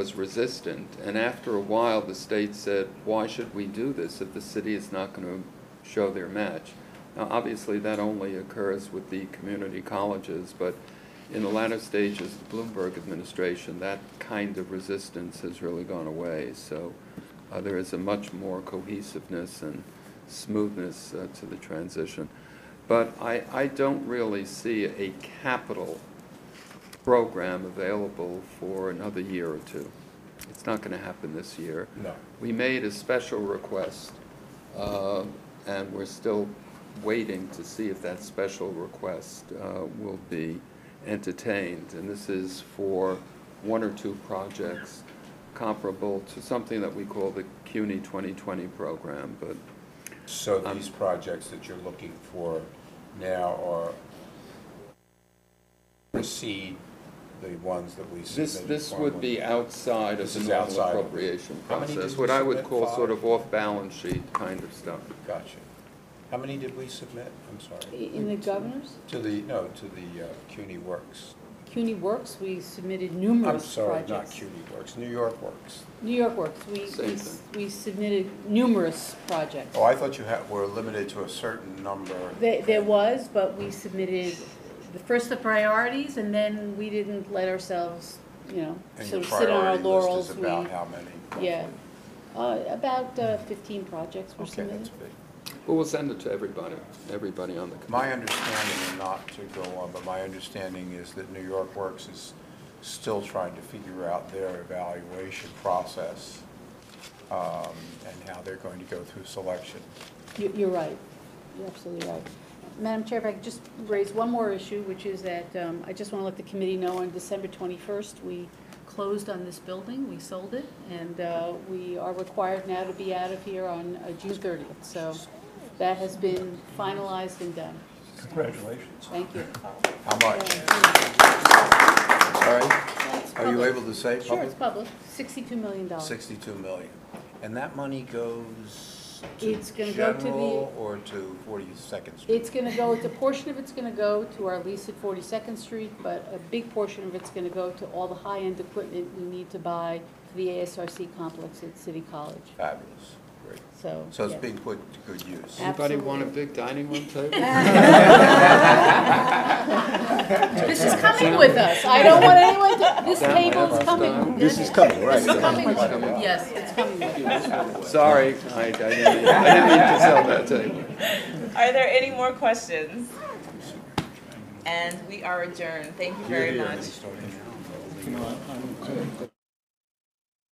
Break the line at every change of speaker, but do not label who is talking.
was resistant, and after a while, the state said, why should we do this if the city is not going to show their match? Now, obviously, that only occurs with the community colleges, but in the latter stages of the Bloomberg administration, that kind of resistance has really gone away. So uh, there is a much more cohesiveness and smoothness uh, to the transition. But I, I don't really see a capital program available for another year or two. It's not going to happen this year.
No.
We made a special request, uh, and we're still waiting to see if that special request uh, will be entertained. And this is for one or two projects comparable to something that we call the CUNY 2020 program, but
So
Um,
these projects that you're looking for now are, precede the ones that we
This,
submitted?
this would
formally?
be outside of
This
the
is
normal
outside of-
appropriation
How many
process,
did
what
you
I would
submit?
call
Five?
sort of off-balance sheet kind of stuff.
Gotcha. How many did we submit? I'm sorry.
In the governor's,
To the, no, to the uh, CUNY Works.
CUNY Works, we submitted
I'm
numerous
sorry,
projects.
not CUNY Works, New York Works.
New York Works, we,
Same
we-
thing.
we submitted numerous projects.
Oh, I thought you had, were limited to a certain number.
There, there was, but we submitted the first the priorities, and then we didn't let ourselves, you know,
And
sort
your
of sit on our
priority list
laurels.
is
We
about how many?
Yeah, uh, about uh, fifteen projects were
Okay,
submitted.
that's big.
But we'll send it to everybody, everybody on the committee.
My understanding, and not to go on, but my understanding is that New York Works is still trying to figure out their evaluation process um, and how they're going to go through selection.
You- You're right. You're absolutely right. Madam Chair, if I could just raise one more issue, which is that um, I just want to let the committee know on December 21st, we closed on this building, we sold it, and uh, we are required now to be out of here on uh, June 30th. So that has been finalized and done.
Congratulations.
Thank you.
How much? Sorry? Are you able to say
Sure, it's
public?
public. $62 million.
62 million. And that money goes
It's
to
gonna go to the-
general or to 42nd Street?
It's going to go, the portion of it's going to go to our lease at 42nd Street, but a big portion of it's going to go to all the high-end equipment we need to buy for the ASRC complex at City College,
Fabulous, great.
so.
So it's
yeah.
being put to good use.
Anybody want a
Absolutely.
big dining room table?
This is coming with us. I don't want anyone to, this
Down
table
left
is coming.
side.
This
is coming, right.
is coming with us.
coming.
Yes, it's coming with us.
Sorry, I, I didn't mean, I didn't mean to sell that table.
Are there any more questions? And we are adjourned. Thank you very much.